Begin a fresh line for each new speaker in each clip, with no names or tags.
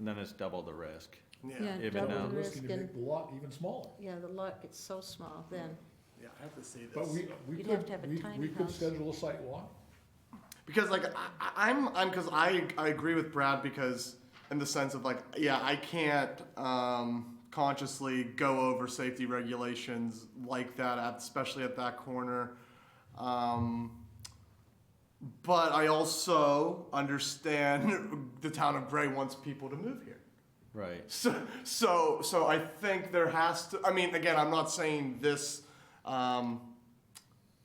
then it's double the risk.
Yeah,
Even
double
now.
the risk
Risking to
and,
make the lot even smaller.
yeah, the lot gets so small then.
Yeah, I have to say
But
this,
we, we
You'd have to
could,
have a
we,
tiny
we could
house.
schedule a site walk.
because like, I, I- I'm, I'm, cause I, I agree with Brad because in the sense of like, yeah, I can't, um, consciously go over safety regulations like that, at- especially at that corner. Um, but I also understand the town of Gray wants people to move here.
Right.
So, so, so I think there has to. I mean, again, I'm not saying this. Um,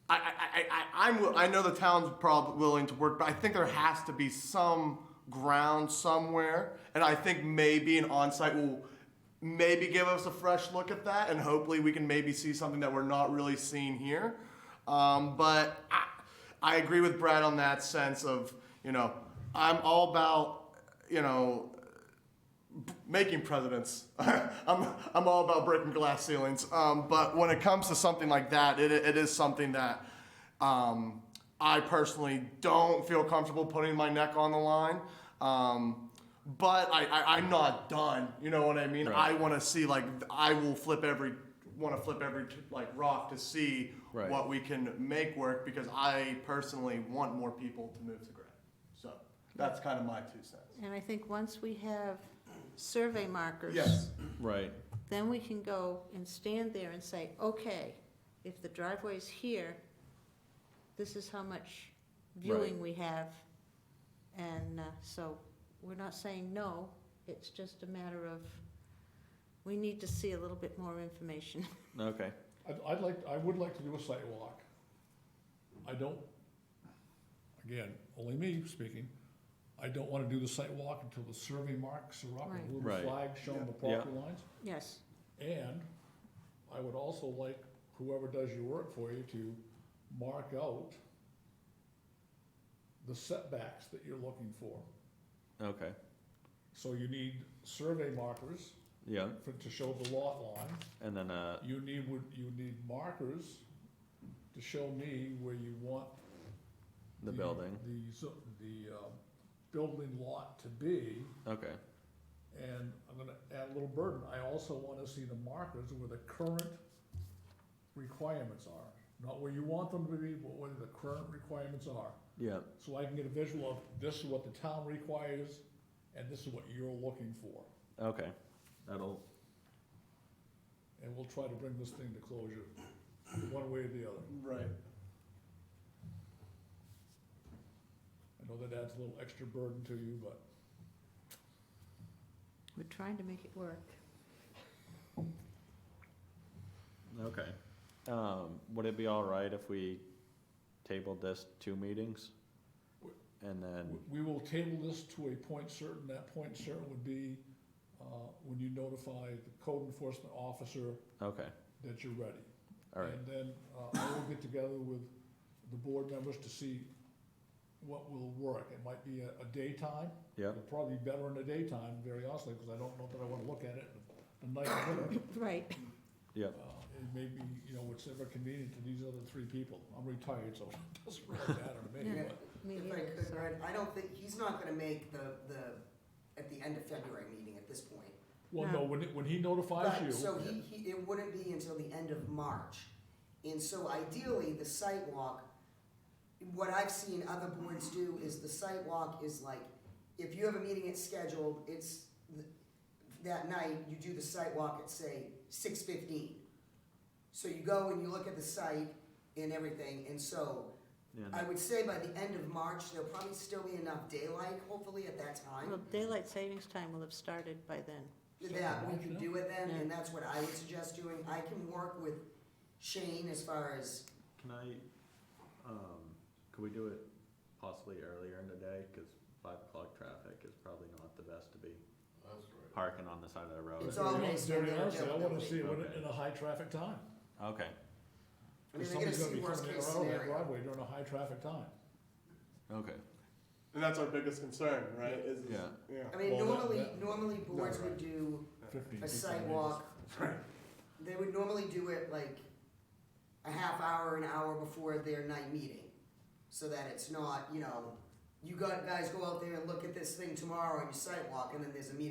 I, I, I, I, I'm. wi- I know the town's probably willing to work, but I think there has to be some ground somewhere, and I think maybe an on-site will maybe give us a fresh look at that, and hopefully we can maybe see something that we're not really seeing here. Um, but I, I agree with Brad on that sense of you know I'm all about you know making presidents. I'm, I'm all about breaking glass ceilings. Um, but when it comes to something like that, it, it is something that um, I personally don't feel comfortable putting my neck on the line. Um, but I, I, I'm not done. You know what I mean?
Right.
I want to see like I will flip every want to flip every like rock to see
Right.
what we can make work because I personally want more people to move to Gray. So that's kind of my two cents.
And I think once we have survey markers.
Yes.
Right.
Then we can go and stand there and say, okay, if the driveway's here, this is how much viewing we have. And uh, so we're not saying no, it's just a matter of, we need to see a little bit more information.
Okay.
I'd, I'd like, I would like to do a site walk. I don't, again, only me speaking, I don't wanna do the site walk until the survey marks are up,
Right.
and little
Right.
flag showing the
Yeah.
property lines.
Yes,
And I would also like whoever does your work for you to mark out the setbacks that you're looking for.
Okay.
So you need survey markers
Yeah.
for, to show the lot line.
And then uh,
You need, would, you need markers to show me where you want.
Mm-hmm.
the building.
The, zo- the, um, building lot to be,
Okay.
and I'm gonna add a little burden, I also wanna see the markers where the current requirements are. Not where you want them to be, but where the current requirements are.
Yeah.
So I can get a visual of this is what the town requires, and this is what you're looking for.
Okay. That'll.
And we'll try to bring this thing to closure, one way or the other.
Right.
I know that adds a little extra burden to you, but
we're trying to make it work.
Okay. Um, would it be all right if we tabled this two meetings? And then,
w- we will table this to a point certain. That point certain would be, uh, when you notify the code enforcement officer
okay.
that you're ready.
All right.
And then, uh, I will get together with the board members to see what will work. It might be a, a daytime.
Yeah.
It'll probably be better in the daytime, very honestly, because I don't know that I wanna look at it the night of winter.
Right.
Yeah.
Uh, It may be, you know, whichever convenient to these other three people. I'm retired, so it doesn't really matter to me,
Yeah.
but.
Me
If I
neither,
could,
so-
Brad, I don't think, he's not gonna make the, the, at the end of February meeting at this point.
Well, no, when, it- when he notifies
Right,
you.
So he, he, it wouldn't be until the end of March. And so ideally, the site walk, what I've seen other boards do is the site walk is like, if you have a meeting it's scheduled, it's, th- that night, you do the site walk at, say, six fifteen. So you go and you look at the site and everything, and so I
Yeah.
would say by the end of March, there'll probably still be enough daylight, hopefully at that time.
Well, daylight savings time will have started by then.
That we can do it then,
Yeah.
and that's what I would suggest doing. I can work with Shane as far as,
Can I, um, could we do it possibly earlier in the day? Cause five o'clock traffic is probably not the best to be parking on the side of the road.
It's all- Always
Very
when they're
honestly, I wanna
available.
see it when it- in a high traffic time.
Okay.
I mean,
If
they're gonna
somebody's gonna
see
be
worst
coming in
case
or out of that
scenario.
Broadway during a high traffic time.
Okay.
And that's our biggest concern, right? Is, is-
Yeah.
Yeah.
I mean,
Well, that-
normally,
that-
normally boards would do a sidewalk. They would normally do it like a half hour, an hour before their night meeting. So that it's not, you know, you got, guys go out there and look at this thing tomorrow on your sidewalk, and then there's a meeting